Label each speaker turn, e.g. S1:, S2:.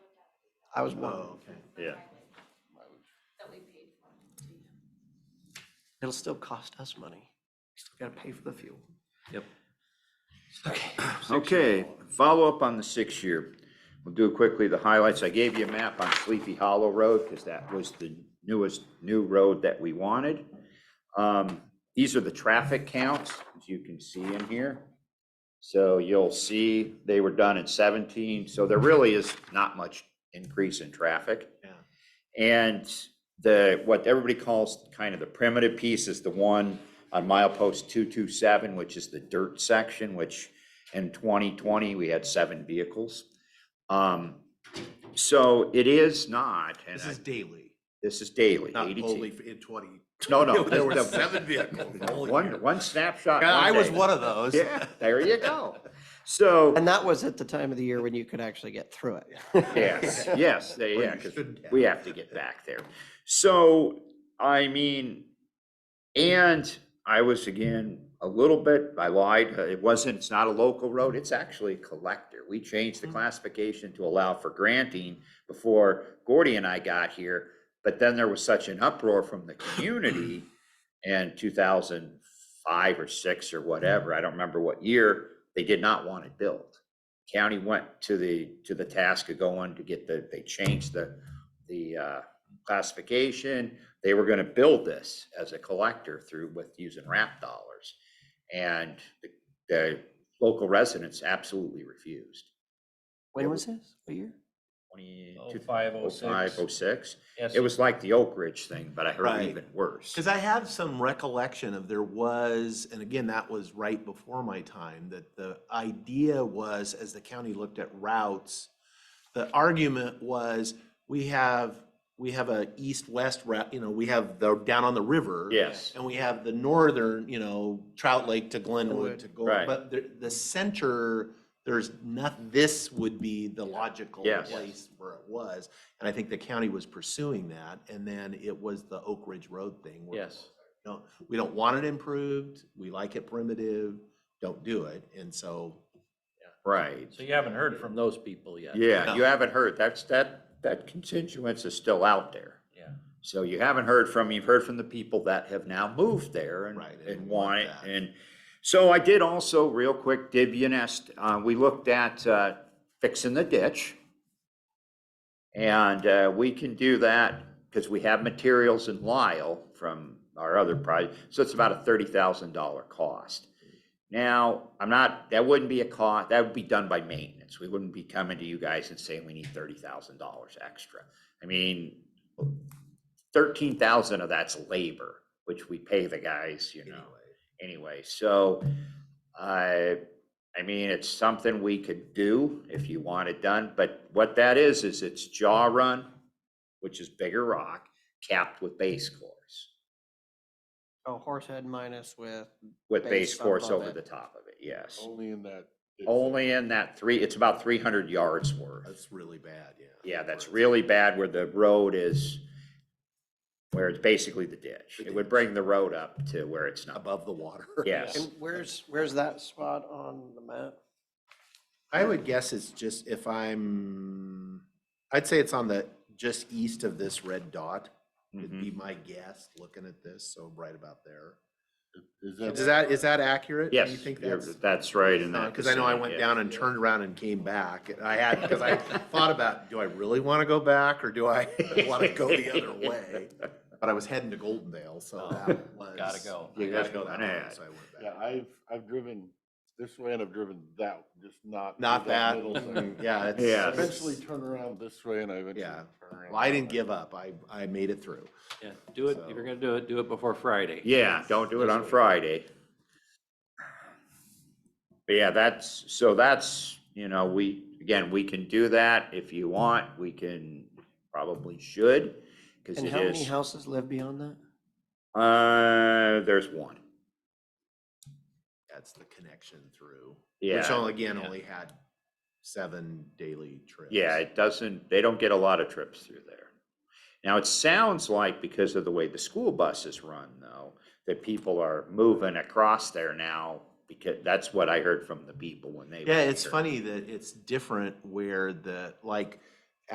S1: I was one.
S2: Oh, okay.
S3: Yeah.
S4: That we paid for to you.
S1: It'll still cost us money. Still gotta pay for the fuel.
S2: Yep.
S3: Okay, follow up on the six-year. We'll do quickly the highlights. I gave you a map on Sleepy Hollow Road because that was the newest, new road that we wanted. Um, These are the traffic counts, as you can see in here. So you'll see they were done in 17, so there really is not much increase in traffic.
S2: Yeah.
S3: And the, what everybody calls kind of the primitive piece is the one on milepost 227, which is the dirt section, which in 2020, we had seven vehicles. Um, So it is not, and
S2: This
S3: I-
S2: is daily,
S3: this is daily,
S2: not
S3: 82.
S2: only in twenty.
S3: No, no.
S2: There were
S3: the-
S2: seven vehicles the whole year.
S3: One, one snapshot.
S2: Yeah, I was
S3: day.
S2: one of those.
S3: Yeah, there you go. So,
S1: And that was at the time of the year when you could actually get through it.
S3: yes, yes, they-
S2: Or
S3: yeah,
S2: you
S3: 'cause
S2: should have.
S3: we have to get back there. So, I mean, and I was again, a little bit, I lied, uh, it wasn't, it's not a local road, it's actually a collector. We changed the classification to allow for granting before Gordy and I got here. But then there was such an uproar from the community in two thousand five or six or whatever, I don't remember what year, they did not want it built. County went to the, to the task of going to get the, they changed the, the uh, classification. They were gonna build this as a collector through with using RAP dollars. And the, the local residents absolutely refused.
S1: When was this? What year?
S3: Twenty-
S5: Oh, five, oh,
S3: oh, five,
S5: six.
S3: oh, six.
S5: Yes,
S3: It was like the Oak Ridge thing, but I heard
S2: Right.
S3: even worse.
S2: Because I have some recollection of there was, and again, that was right before my time, that the idea was, as the county looked at routes, the argument was, we have, we have a east-west route, you know, we have the, down on the river.
S3: Yes,
S2: And we have the northern, you know, Trout Lake to
S1: Glenwood.
S2: Glenwood to go,
S3: Right.
S2: but the, the center, there's not, this would be the logical
S3: Yes.
S2: place where it was. And I think the county was pursuing that, and then it was the Oak Ridge Road thing. where,
S5: yes.
S2: Don't, we don't want it improved, we like it primitive, don't do it, and so.
S3: right.
S5: So you haven't heard from those people yet?
S3: Yeah, you
S2: No.
S3: haven't heard. That's, that, that constituents is still out there.
S5: Yeah.
S3: So you haven't heard from, you've heard from the people that have now moved there and,
S2: Right, and
S3: and
S2: want
S3: want it.
S2: that.
S3: And so I did also, real quick, did Unest, uh, we looked at, uh, fixing the ditch. And, uh, we can do that because we have materials in Lyle from our other
S2: Mm-hmm.
S3: project. So it's about a thirty thousand dollar cost. Now, I'm not, that wouldn't be a cost, that would be done by maintenance. We wouldn't be coming to you guys and saying we need thirty thousand dollars extra. I mean, thirteen thousand of that's labor, which we pay the guys, you know, anyway, so. I, I mean, it's something we could do if you want it done, but what that is, is it's jaw run, which is bigger rock, capped with base course,
S1: Oh, Horsehead minus with,
S3: with
S1: Base
S3: base course
S1: above
S3: over
S1: it.
S3: the top of it, yes.
S6: Only in that. it's-
S3: Only in that three, it's about three hundred yards worth.
S2: That's really bad, yeah.
S3: Yeah, that's
S2: Where it's-
S3: really bad where the road is, where it's basically the ditch. It would bring the road up to where it's not.
S2: Above the water.
S3: Yes.
S1: and where's, where's that spot on the map?
S2: I would guess it's just if I'm, I'd say it's on the, just east of this red dot. would
S3: Mhm.
S2: be my guess, looking at this, so right about there.
S6: Is
S2: Is that, is that accurate? Do
S3: Yes,
S2: you think
S3: you're-
S2: that's?
S3: that's right in that.
S2: Because I know I
S3: vicinity,
S2: went
S3: yeah.
S2: down and turned around and came back. and I had, because I thought about, do I really want to go back or do I want to go the other way? But I was heading to Goldendale, so
S5: Oh,
S2: that was.
S5: gotta go.
S2: I
S3: You
S2: gotta
S3: gotta
S2: go
S3: go
S2: that way,
S3: back.
S2: so I went
S6: Yeah,
S2: back.
S6: I've, I've driven this way and I've driven that, just not.
S2: Not that, mm,
S6: middle section.
S2: yeah, it's.
S3: Yeah.
S6: I Eventually turn around this way and I eventually.
S2: Yeah.
S6: turn around
S2: Well, I
S6: that
S2: didn't
S6: way.
S2: give up. I, I made it through.
S5: Yeah, do it, if
S2: So-
S5: you're gonna do it, do it before Friday.
S3: Yeah, don't do it on
S5: This way.
S3: Friday. But yeah, that's, so that's, you know, we, again, we can do that if you want. We can, probably should, because
S1: And
S3: it
S1: how many
S3: is.
S1: houses live beyond that?
S3: Uh, there's one.
S2: That's the connection through.
S3: Yeah,
S2: Which only, again,
S5: yeah.
S2: only had seven daily trips.
S3: yeah, it doesn't, they don't get a lot of trips through there. Now, it sounds like because of the way the school buses run though, that people are moving across there now because that's what I heard from the people when they.
S2: Yeah,
S3: were
S2: it's
S3: here.
S2: funny that it's different where the, like,